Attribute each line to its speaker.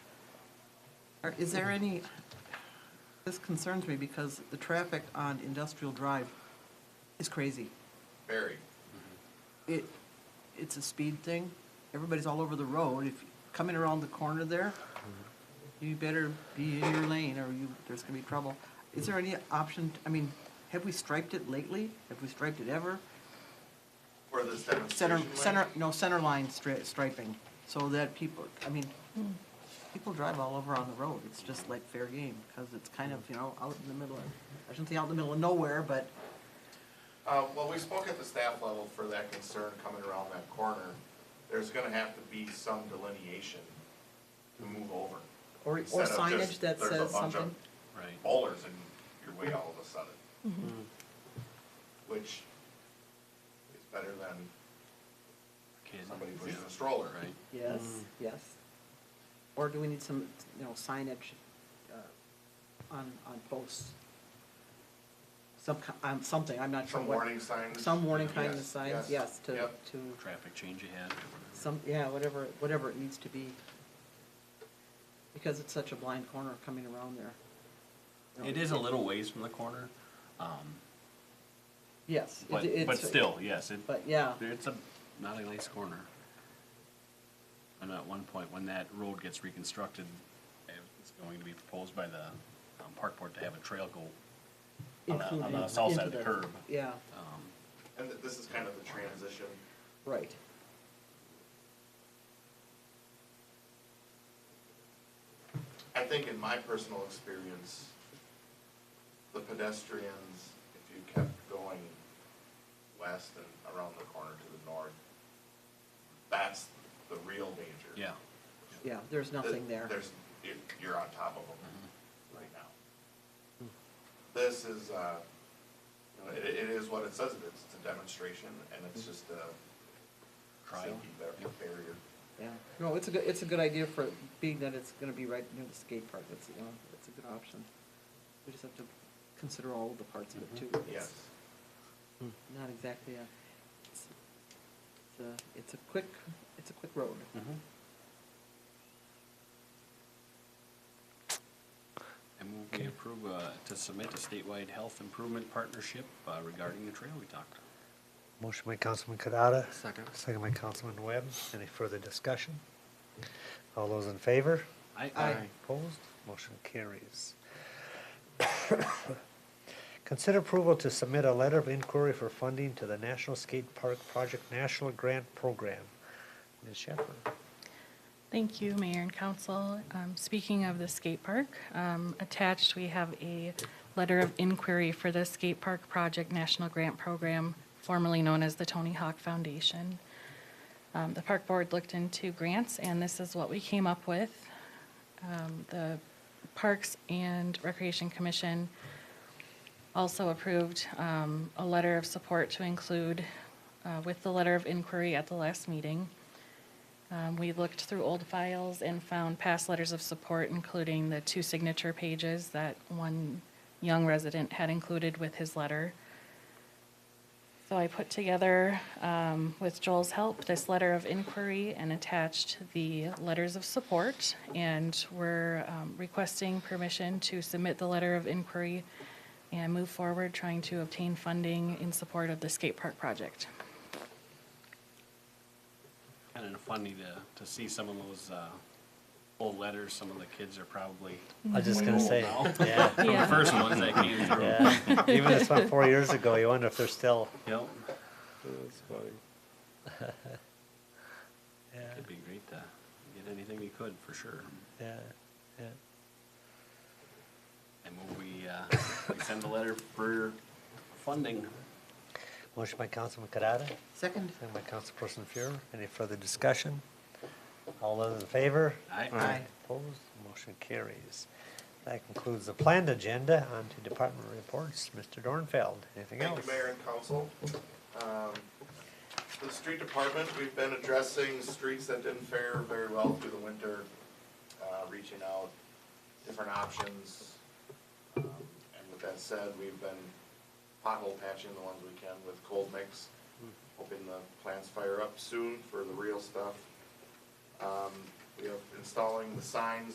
Speaker 1: Are- Is there any, this concerns me because the traffic on Industrial Drive is crazy.
Speaker 2: Very.
Speaker 1: It, it's a speed thing. Everybody's all over the road. If, coming around the corner there, you better be in your lane or you, there's gonna be trouble. Is there any option, I mean, have we striped it lately? Have we striped it ever?
Speaker 2: Where this
Speaker 1: Center,
Speaker 2: demonstration
Speaker 1: center,
Speaker 2: went,
Speaker 1: no, center line stri- striping, so that people, I mean, people drive all over on the road, it's just like fair game, because it's kind of, you know, out in the middle of, I shouldn't say out in the middle of nowhere, but,
Speaker 2: Uh, well, we spoke at the staff level for that concern coming around that corner. There's gonna have to be some delineation to move over.
Speaker 1: or, or
Speaker 2: Instead of
Speaker 1: signage
Speaker 2: just,
Speaker 1: that
Speaker 2: "There's a
Speaker 1: says
Speaker 2: bunch of
Speaker 1: something.
Speaker 3: Right.
Speaker 2: Bowlers in your way all of a sudden. Which is better than
Speaker 3: Kid.
Speaker 2: somebody pushing a stroller.
Speaker 3: Right.
Speaker 1: Yes, yes. Or do we need some, you know, signage, uh, on, on posts? Some, ki- um, something, I'm not sure
Speaker 2: Some
Speaker 1: what.
Speaker 2: warning signs.
Speaker 1: Some warning kind of
Speaker 2: Yes,
Speaker 1: signs, yes, to, to.
Speaker 2: Yep.
Speaker 3: Traffic change ahead. or whatever.
Speaker 1: Some, yeah, whatever, whatever it needs to be. Because it's such a blind corner coming around there.
Speaker 3: It is a little ways from the corner, um,
Speaker 1: Yes. it-
Speaker 3: but,
Speaker 1: it's-
Speaker 3: but still, yes, it,
Speaker 1: But, yeah,
Speaker 3: it's a, not a nice corner. And at one point, when that road gets reconstructed, eh, it's going to be proposed by the um, park board to have a trail go on the-
Speaker 1: included.
Speaker 3: on the south side of
Speaker 1: into
Speaker 3: the curb.
Speaker 1: Yeah,
Speaker 3: Um,
Speaker 2: And th- this is kind of the transition.
Speaker 1: right.
Speaker 2: I think in my personal experience, the pedestrians, if you kept going west and around the corner to the north, that's the real danger.
Speaker 3: Yeah,
Speaker 1: Yeah, there's nothing there.
Speaker 2: There's, you're, you're on top of
Speaker 3: Mm-hmm.
Speaker 2: them right now. This is, uh, you know, it, it is what it says it is. It's a demonstration and it's
Speaker 1: Mm-hmm.
Speaker 2: just a
Speaker 3: Try.
Speaker 2: safety bar-
Speaker 3: Yep.
Speaker 2: barrier.
Speaker 1: Yeah. No, it's a good, it's a good idea for, being that it's gonna be right near the skate park, it's, you know, it's a good option. We just have to consider all the parts of it too. It's-
Speaker 2: Mm-hmm. Yes.
Speaker 1: Not exactly a, it's, it's a, it's a quick, it's a quick road.
Speaker 3: Mm-hmm. I move we approve, uh, to submit a statewide health improvement partnership uh, regarding the trail we talked.
Speaker 4: Motion by Councilman Kadada,
Speaker 3: Second.
Speaker 4: second by Councilman Webb. Any further discussion? All those in favor?
Speaker 3: I,
Speaker 1: Aye.
Speaker 4: Opposed? Motion carries. Consider approval to submit a letter of inquiry for funding to the National Skate Park Project National Grant Program. Ms. Shepherd?
Speaker 5: Thank you, Mayor and Council. Um, Speaking of the skate park, um, attached, we have a letter of inquiry for the Skate Park Project National Grant Program, formerly known as the Tony Hawk Foundation. Um, The Park Board looked into grants, and this is what we came up with. Um, The Parks and Recreation Commission also approved um, a letter of support to include uh, with the letter of inquiry at the last meeting. Um, We looked through old files and found past letters of support, including the two signature pages that one young resident had included with his letter. So I put together, um, with Joel's help, this letter of inquiry and attached the letters of support. And we're um, requesting permission to submit the letter of inquiry and move forward trying to obtain funding in support of the skate park project.
Speaker 3: Kind of funny to, to see some of those, uh, old letters, some of the kids are probably.
Speaker 4: I was just gonna
Speaker 3: way
Speaker 4: say,
Speaker 3: old now.
Speaker 4: yeah,
Speaker 3: From the
Speaker 5: Yeah.
Speaker 3: first ones that came through.
Speaker 4: yeah. Even this one four years ago, you wonder if they're still.
Speaker 3: Yep,
Speaker 4: Yeah.
Speaker 3: it'd be great to get anything we could, for sure.
Speaker 4: Yeah, yeah.
Speaker 3: And will we, uh, we send a letter for funding?
Speaker 4: Motion by Councilman Kadada,
Speaker 1: Second?
Speaker 4: second by Councilperson Fuhrer. Any further discussion? All those in favor?
Speaker 3: I
Speaker 1: Aye.
Speaker 4: Opposed? Motion carries. That concludes the planned agenda. On to department reports. Mr. Dornfeld, anything else?
Speaker 2: Thank you, Mayor and Council. Um, The street department, we've been addressing streets that didn't fare very well through the winter, uh, reaching out, different options. Um, And with that said, we've been pothole patching the ones we can with cold mix, hoping the plants fire up soon for the real stuff. Um, We have installing the signs